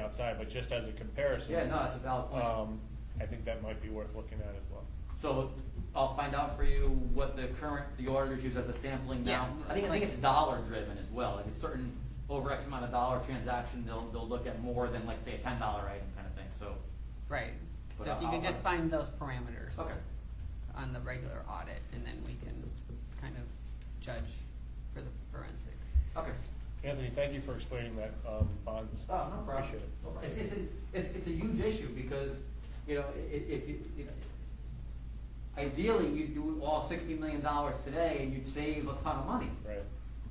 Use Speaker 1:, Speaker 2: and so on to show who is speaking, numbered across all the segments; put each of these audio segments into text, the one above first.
Speaker 1: outside, but just as a comparison.
Speaker 2: Yeah, no, that's a valid point.
Speaker 1: Um, I think that might be worth looking at as well.
Speaker 2: So I'll find out for you what the current, the auditors use as a sampling now.
Speaker 3: Yeah,
Speaker 2: I think, I
Speaker 3: like-
Speaker 2: think it's dollar driven as well, like a certain, over X amount of dollar transaction, they'll, they'll look at more than like, say, a ten dollar item kind of thing, so.
Speaker 3: Right,
Speaker 2: But
Speaker 3: so if you
Speaker 2: I'll-
Speaker 3: can just
Speaker 2: I'll-
Speaker 3: find those parameters.
Speaker 2: Okay.
Speaker 3: On the regular audit, and then we can kind of judge for the forensic.
Speaker 2: Okay.
Speaker 1: Anthony, thank you for explaining that, um, bonds.
Speaker 2: Oh, no problem.
Speaker 1: Appreciate it.
Speaker 2: No problem. It's, it's, a- it's, it's a huge issue because, you know, i- i- if you, you know, ideally, you'd do all sixty million dollars today and you'd save a ton of money.
Speaker 1: Right.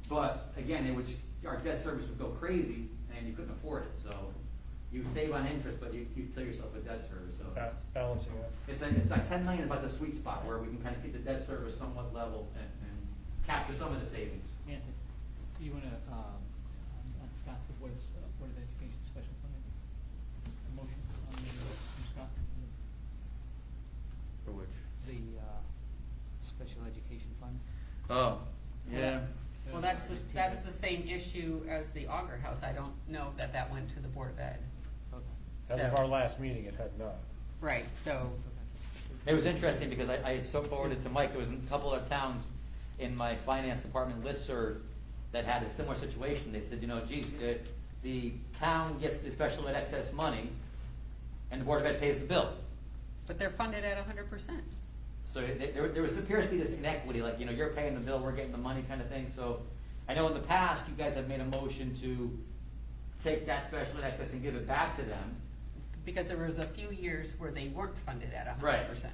Speaker 2: But again, it would, our debt service would go crazy and you couldn't afford it, so you save on interest, but you, you kill yourself with debt service, so
Speaker 1: Ba-
Speaker 2: it's.
Speaker 1: Balancing it.
Speaker 2: It's like, it's like ten million is about the sweet spot where we can kind of keep the debt service somewhat level and, and capture some of the savings.
Speaker 4: Anthony, do you want to, um, on Scott's Board of, Board of Education Special Permit? A motion on the, from Scott?
Speaker 5: For which?
Speaker 4: The, uh, special education funds?
Speaker 5: Oh,
Speaker 3: yeah.
Speaker 5: yeah.
Speaker 3: Well, that's, the- that's the same issue as the Auger House, I don't know that that went to the Board of Ed.
Speaker 4: Okay.
Speaker 1: As of
Speaker 3: So-
Speaker 1: our last meeting, it had not.
Speaker 3: Right, so,
Speaker 2: It was interesting because I, I so forwarded to Mike, there was a couple of towns in my finance department listserv that had a similar situation. They said, you know, geez, uh, the town gets the special ed excess money and the Board of Ed pays the bill.
Speaker 3: but they're funded at hundred percent.
Speaker 2: So th- there, there was, appears to be this inequity, like, you know, you're paying the bill, we're getting the money kind of thing. So I know in the past, you guys have made a motion to take that special ed excess and give it back to them.
Speaker 3: Because there was a few years where they weren't funded at
Speaker 2: Right.
Speaker 3: hundred percent.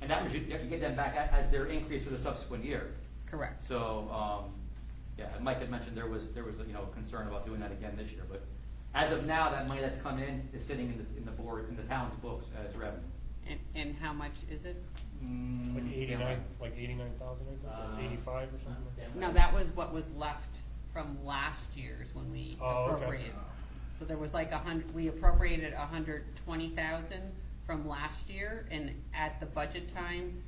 Speaker 2: And that was, you you get them back a- as their increase for the subsequent year.
Speaker 3: Correct.
Speaker 2: So, um, yeah, and Mike had mentioned there was, there was, you know, concern about doing that again this year, but as of now, that money that's come in is sitting in the, in the board, in the town's books as revenue.
Speaker 3: And, and how much is it?
Speaker 1: Like eighty-nine,
Speaker 2: Yeah.
Speaker 1: like eighty-nine thousand, I
Speaker 2: Mm-hmm. Uh,
Speaker 1: think, or eighty-five or something. Mm, like that.
Speaker 3: No, that was what was left from last year's when we
Speaker 1: Oh, okay.
Speaker 3: appropriated. So there was like a hundred, we appropriated a hundred twenty thousand from last year, and at the budget time,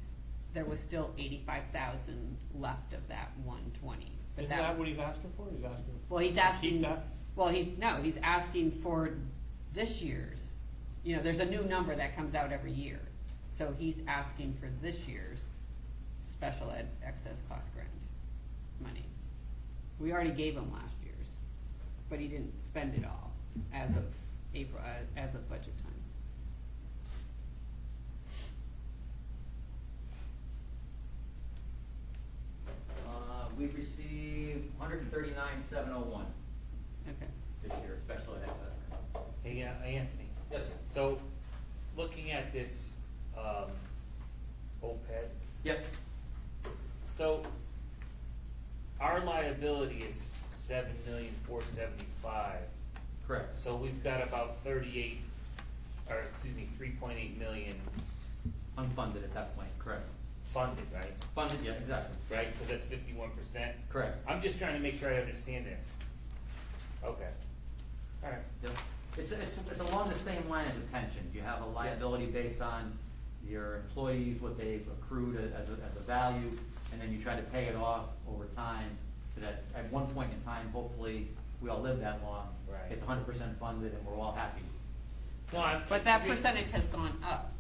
Speaker 3: there was still eighty-five thousand left of that one twenty. But
Speaker 1: Isn't that what he's asking for? He's asking.
Speaker 3: Well, he's
Speaker 1: to Keep
Speaker 3: asking,
Speaker 1: that?
Speaker 3: well, he's, no, he's asking for this year's, you know, there's a new number that comes out every year. So he's asking for this year's special ed excess cost grant money. We already gave him last year's, but he didn't spend it all as of April, uh, as of budget time.
Speaker 2: Uh, we've received hundred and thirty-nine, seven oh one
Speaker 3: Okay.
Speaker 2: this year, special ed excess.
Speaker 6: Hey, uh, Anthony,
Speaker 2: Yes, sir.
Speaker 6: so, looking at this, um, OPEB,
Speaker 2: Yep,
Speaker 6: so, our liability is seven million four seventy-five,
Speaker 2: correct.
Speaker 6: so we've got about thirty-eight, or excuse me, three point eight million
Speaker 2: Unfunded at that point, correct.
Speaker 6: funded, right?
Speaker 2: Funded, yes, exactly.
Speaker 6: Right, so that's fifty-one percent?
Speaker 2: Correct.
Speaker 6: I'm just trying to make sure I understand this. Okay. All right.
Speaker 2: Yep. It's, it's, it's along the same line as a pension. You have a liability based on your employees, what they've accrued a- as a, as a value, and then you try to pay it off over time, so that at one point in time, hopefully, we all live that long.
Speaker 6: Right.
Speaker 2: It's hundred percent funded and we're all happy.
Speaker 6: No, I'm.
Speaker 3: But that percentage has gone up.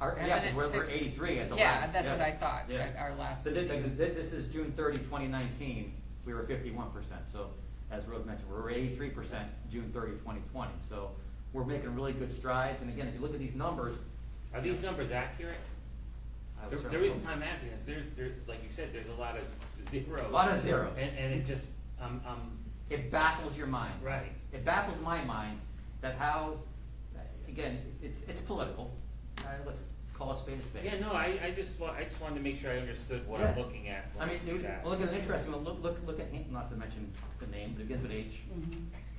Speaker 2: Our,
Speaker 3: Isn't
Speaker 2: yeah, 'cause
Speaker 3: it
Speaker 2: we're, we're
Speaker 3: fif-
Speaker 2: eighthi-three at the
Speaker 3: Yeah,
Speaker 2: last.
Speaker 3: that's what
Speaker 2: yeah,
Speaker 3: I thought,
Speaker 2: yeah.
Speaker 3: at our last
Speaker 2: So thi-
Speaker 3: meeting.
Speaker 2: thi- this is June 30, 2019. we were fifty-one percent, so as Rose mentioned, we're eighty-three percent June 30, 2020. So we're making really good strides, and again, if you look at these numbers.
Speaker 6: Are these numbers accurate?
Speaker 2: I
Speaker 6: The,
Speaker 2: was
Speaker 6: the
Speaker 2: certainly-
Speaker 6: reason I'm asking is there's, there, like you said, there's a lot of zeros.
Speaker 2: A lot of zeros.
Speaker 6: And, and it just, I'm, I'm,
Speaker 2: It baffles your mind.
Speaker 6: Right.
Speaker 2: It baffles my mind that how, again, it's, it's political, uh, let's call a spade a spade.
Speaker 6: yeah, no, I, I just wa, I just wanted to make sure I understood what I'm
Speaker 2: Yeah.
Speaker 6: looking at.
Speaker 2: I
Speaker 6: when
Speaker 2: mean,
Speaker 6: see
Speaker 2: dude,
Speaker 6: that.
Speaker 2: well, look at an interesting one, look, look, look at, Hin- not to mention the name, but it begins with H.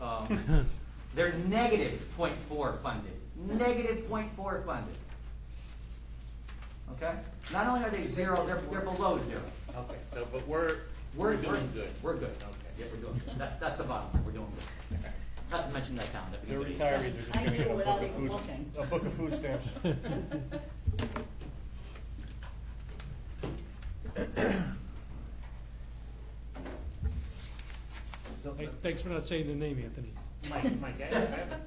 Speaker 3: Mm-hmm.
Speaker 2: Um, They're negative point four funded, negative point four funded. Okay? Not only are they zero, they're, they're below zero.
Speaker 6: Okay, so, but we're,
Speaker 2: We're
Speaker 6: we're doing good.
Speaker 2: We're good. Yeah,
Speaker 6: Okay.
Speaker 2: we're doing good. That's, that's the bottom line, we're doing good. Not to mention that town, that
Speaker 1: They're
Speaker 2: begins with H.
Speaker 1: retirees, they're just
Speaker 7: I knew
Speaker 1: gonna get a book
Speaker 7: without
Speaker 1: of
Speaker 7: even
Speaker 1: food,
Speaker 7: looking.
Speaker 1: a book of food stamps.
Speaker 8: Hey, Thanks for not saying the name, Anthony.
Speaker 6: Mike, Mike, I have, I have a